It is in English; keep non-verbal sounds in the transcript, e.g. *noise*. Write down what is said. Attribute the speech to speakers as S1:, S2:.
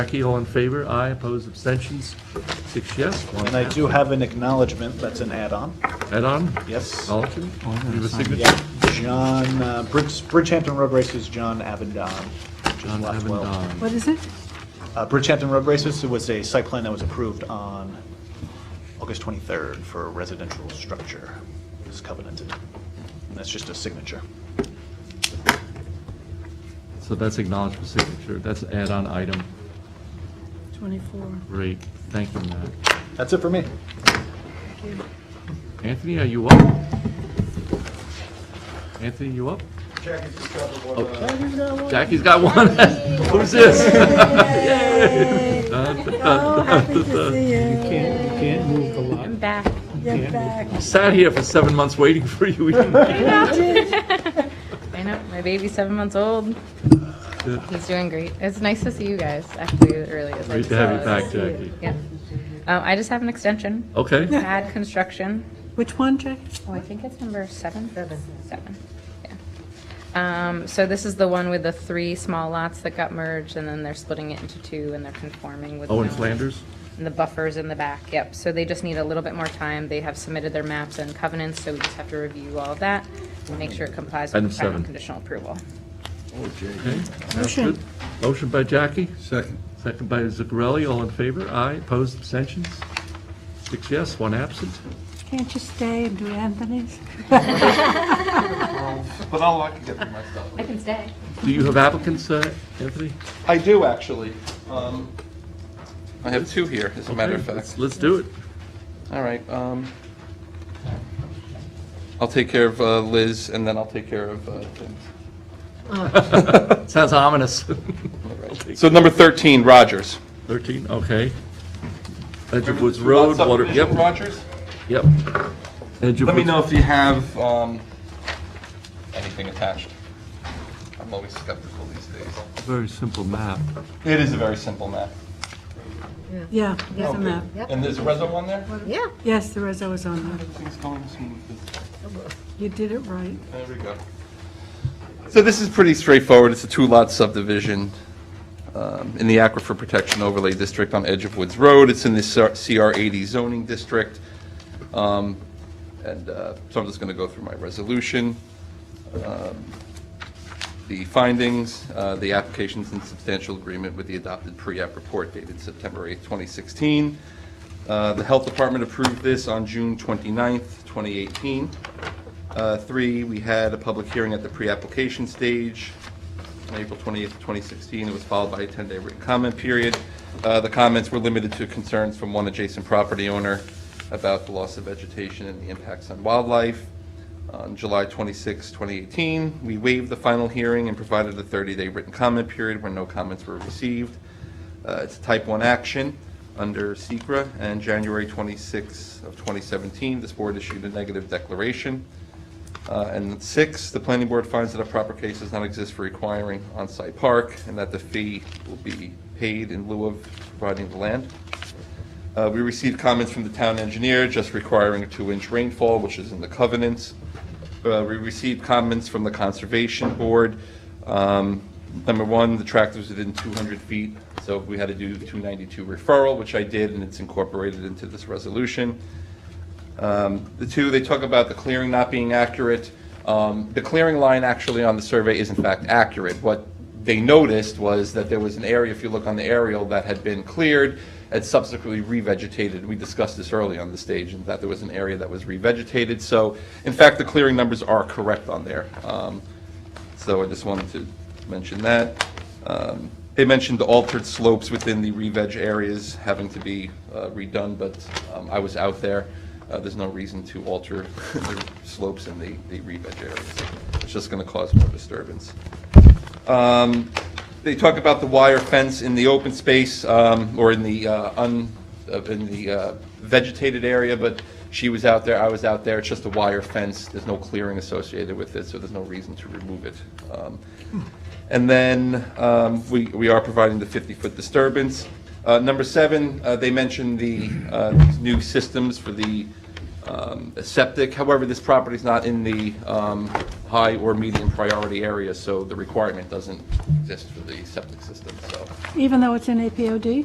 S1: Jackie, all in favor? Aye, opposed, abstentions? Six yes, one
S2: And I do have an acknowledgement that's an add-on.
S1: head on.
S2: Yes.
S1: Acknowledgement? You have a signature?
S2: Yeah, John, uh, Bridge- Bridgehampton Road Races, John Avendon. which is
S1: John
S2: lot 12.
S1: Avendon.
S3: What is it?
S2: Uh, Bridgehampton Road Races was a site plan that was approved on August 23rd for a residential structure. It's covenanted. And That's just a signature.
S1: So that's acknowledged for signature. That's an add-on item.
S3: 24.
S1: Great, thank you, Matt.
S2: That's it for me.
S1: Anthony, are you up? Anthony, you up? Jackie's got one. *laughs* Who's this?
S3: Oh, happy to see you.
S4: Can't, you can't move the lot.
S5: back.
S3: You're back.
S1: Sat here for seven months waiting for you. *laughs* We didn't-
S5: I know, my baby's seven months old. He's doing great. It's nice to see you guys, actually, it really is. I
S1: Great
S5: just
S1: to have you
S5: saw-
S1: back, Jackie.
S5: Yeah. Um, I just have an extension,
S1: Okay,
S5: add construction.
S3: Which one, Jack?
S5: Oh, I think it's number seven? Seven. Seven, yeah. Um, so this is the one with the three small lots that got merged, and then they're splitting it into two, and they're conforming with.
S1: Owen
S5: no-
S1: Oh, Flanders?
S5: And the buffers in the back, yep. So they just need a little bit more time. They have submitted their maps and covenants, so we just have to review all of that and make sure it complies with
S1: Item
S5: the final
S1: seven.
S5: conditional approval.
S1: Okay. that's
S3: Motion.
S1: good. Motion by Jackie,
S6: Second.
S1: second by Zuccarelli, all in favor? Aye, opposed, abstentions? Six yes, one absent.
S3: Can't you stay and do Anthony's?
S2: But I'll, I can get through my stuff.
S5: I can stay.
S1: Do you have applicants, uh, Anthony?
S2: I do, actually. Um,
S7: I have two here, as a matter of
S1: Okay, let's-
S7: fact.
S1: Let's do it.
S7: All right. um, I'll take care of uh, Liz, and then I'll take care of uh, Tim.
S1: Sounds *laughs* ominous.
S7: So number 13, Rogers.
S1: 13, okay. Edge of
S7: Remember
S1: Woods
S7: the two lot
S1: Road, water,
S7: subdivision,
S1: yep,
S7: Rogers?
S1: yep. Edge of
S7: Let me
S1: Woods-
S7: know if you have um, anything attached. I'm always skeptical these days.
S1: Very simple map.
S7: It is a very simple map.
S3: Yeah, there's a map.
S7: And there's a reso on there?
S5: Yeah.
S3: Yes, there was, I was on there.
S7: Everything's going smooth.
S3: You did it right.
S7: There we go. So this is pretty straightforward. It's a two-lot subdivision um, in the Aquifer Protection Overlay District on Edge of Woods Road. It's in the CR 80 zoning district. Um, And uh, so I'm just going to go through my resolution Um, the findings, uh, the application's in substantial agreement with the adopted pre-app report dated September 8, 2016. Uh, The Health Department approved this on June 29th, 2018. Uh, Three, we had a public hearing at the pre-application stage on April 28th, 2016. It was followed by a 10-day written comment period. Uh, The comments were limited to concerns from one adjacent property owner about the loss of vegetation and the impacts on wildlife. On July 26, 2018, we waived the final hearing and provided a 30-day written comment period where no comments were received. Uh, It's a type 1 action under Secra. and January 26 of 2017, this board issued a negative declaration. Uh, And six, the planning board finds that a proper case does not exist for requiring on-site park, and that the fee will be paid in lieu of providing the land. Uh, We received comments from the town engineer just requiring a two-inch rainfall, which is in the covenants. Uh, We received comments from the Conservation Board. Um, Number one, the tract was within 200 feet, so we had to do 292 referral, which I did, and it's incorporated into this resolution. Um, The two, they talk about the clearing not being accurate. Um, The clearing line actually on the survey is in fact accurate. What they noticed was that there was an area, if you look on the aerial, that had been cleared and subsequently revegetated. We discussed this early on the stage, and that there was an area that was revegetated. So, in fact, the clearing numbers are correct on there. Um, so I just wanted to mention that. Um, They mentioned the altered slopes within the re-veg areas having to be uh, redone, but um, I was out there. Uh, There's no reason to alter the slopes in the the re-veg areas. It's just going to cause more disturbance. Um, They talk about the wire fence in the open space, um, or in the uh, un, uh, in the uh, vegetated area, but she was out there, I was out there, it's just a wire fence, there's no clearing associated with it, so there's no reason to remove it. Um, And then um, we we are providing the 50-foot disturbance. Uh, Number seven, uh, they mentioned the uh, new systems for the um, septic, however, this property's not in the um, high or medium priority area, so the requirement doesn't exist for the septic system, so.
S3: Even though it's in APOD?